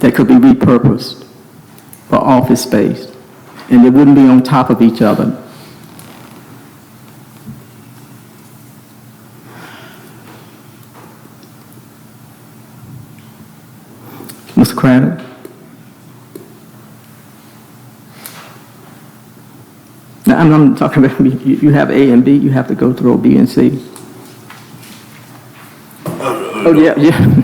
that could be repurposed for office space, and they wouldn't be on top of each other. Mr. Crandall? Now, I'm, I'm talking about, you, you have A and B, you have to go through B and C. Oh, yeah, yeah.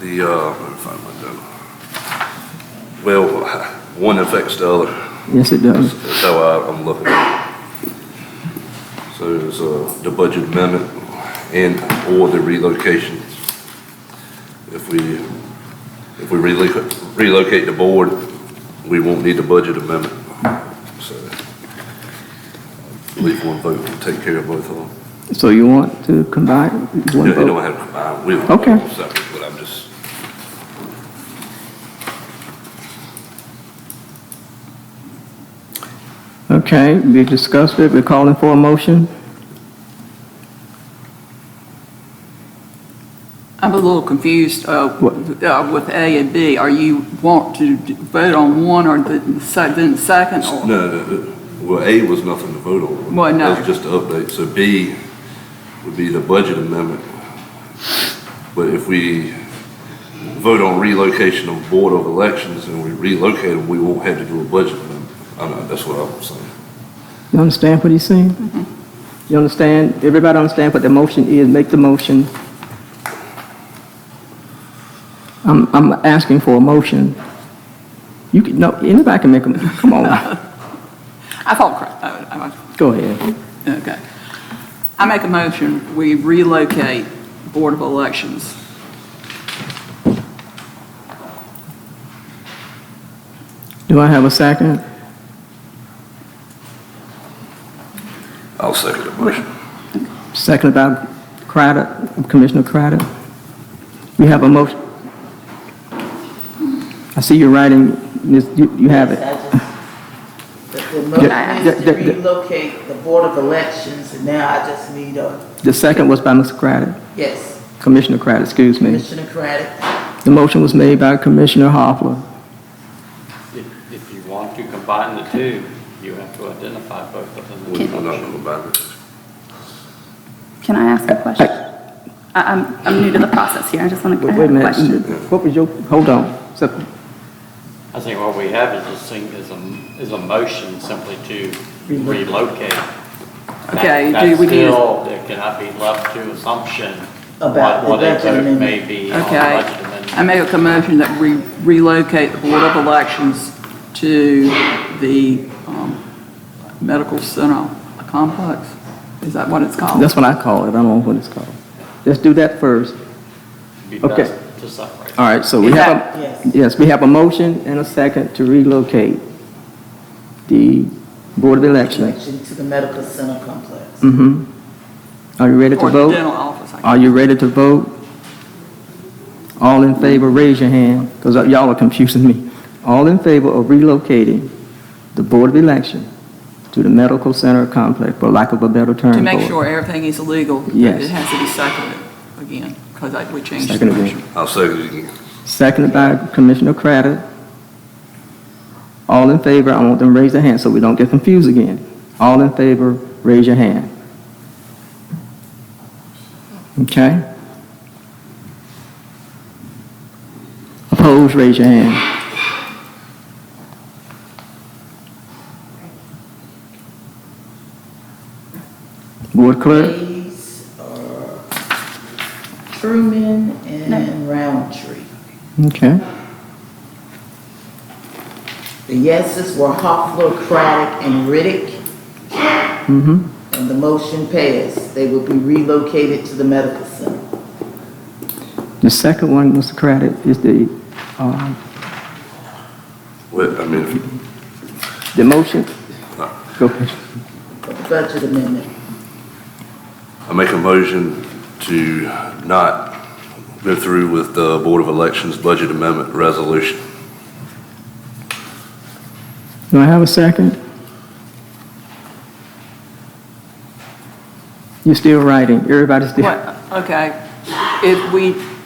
The, uh, let me find my agenda. Well, one affects the other, Yes, it does. that's how I, I'm looking at it. So it's, uh, the budget amendment and or the relocations. If we, if we relocate, relocate the board, we won't need the budget amendment. So I believe one vote will take care of both of them. So you want to combine one They don't vote? have to combine, we'll. Okay. Separate, but I'm just. Okay, we discussed it, we're calling for a motion. I'm a little confused uh, What? uh, with A and B. Are you want to d- vote on one or the se- then the second? No, or- no, no. well, A was nothing to vote on. Well, no. That's just an update. So B would be the budget amendment. But if we vote on relocation of Board of Elections and we relocate them, we won't have to do a budget amendment. I know, that's what I'm saying. You understand what he's saying? You understand, everybody understand what the motion is, make the motion. I'm, I'm asking for a motion. You can, no, anybody can make a, come on, I thought, cor- oh, I was- go ahead. okay. I make a motion, we relocate Board of Elections. Do I have a second? I'll second the motion. Second by Crowder, Commissioner Crowder. We have a motion. I see you're writing, Ms., you, you have it. Yes, I just- Yeah, yeah, yeah, The the motion is to yeah. relocate the Board of Elections, and now I just need a, The second was by Mr. Crowder, yes, Commissioner Crowder, excuse me. Commissioner Craddock. The motion was made by Commissioner Hofler. If, if you want to combine the two, you have to identify both of them. We're not going to buy this. Can I ask a question? I- I'm, I'm new to the process here, I just want to, I Wait wait a have a minute, question. what was your, hold on. So, I think what we have is a sing, is a, is a motion simply to relocate. That- Okay, do we need a- That still, there cannot be left to assumption About what, the what a budget vote amendment. may be on the Okay. budget amendment. I make a motion that we relocate the Board of Elections to the um, Medical Center Complex. Is that what it's called? that's what I call it, I don't know what it's called. Let's do that first. Be okay. best to separate. All right, so we have, Yes. a yes, we have a motion and a second to relocate the Board of Elections. Connection to the Medical Center Complex. Mm-hmm. Are you ready to Or the dental vote? office, I guess. Are you ready to vote? All in favor, raise your hand, because y'all are confusing me. All in favor of relocating the Board of Election to the Medical Center Complex, for lack of a better term. To make Board. sure everything is legal, Yes. it has to be seconded again, because we changed the Seconded again. motion. I'll second it again. Seconded by Commissioner Craddock. All in favor, I want them to raise their hand so we don't get confused again. All in favor, raise your hand. Okay? Opposed, raise your hand. Board Clerk? Hayes, uh, Truman, and Roundtree. Okay. The yeses were Hoffler, Craddock, and Riddick, Mm-hmm. and the motion passed. They will be relocated to the Medical Center. The second one, Mr. Craddock, is the, um, Well, I mean, if you The motion? Go ahead. for the Budget amendment. I make a motion to not go through with the Board of Elections Budget Amendment Resolution. Do I have a second? You're still writing, everybody's still. What, okay, if we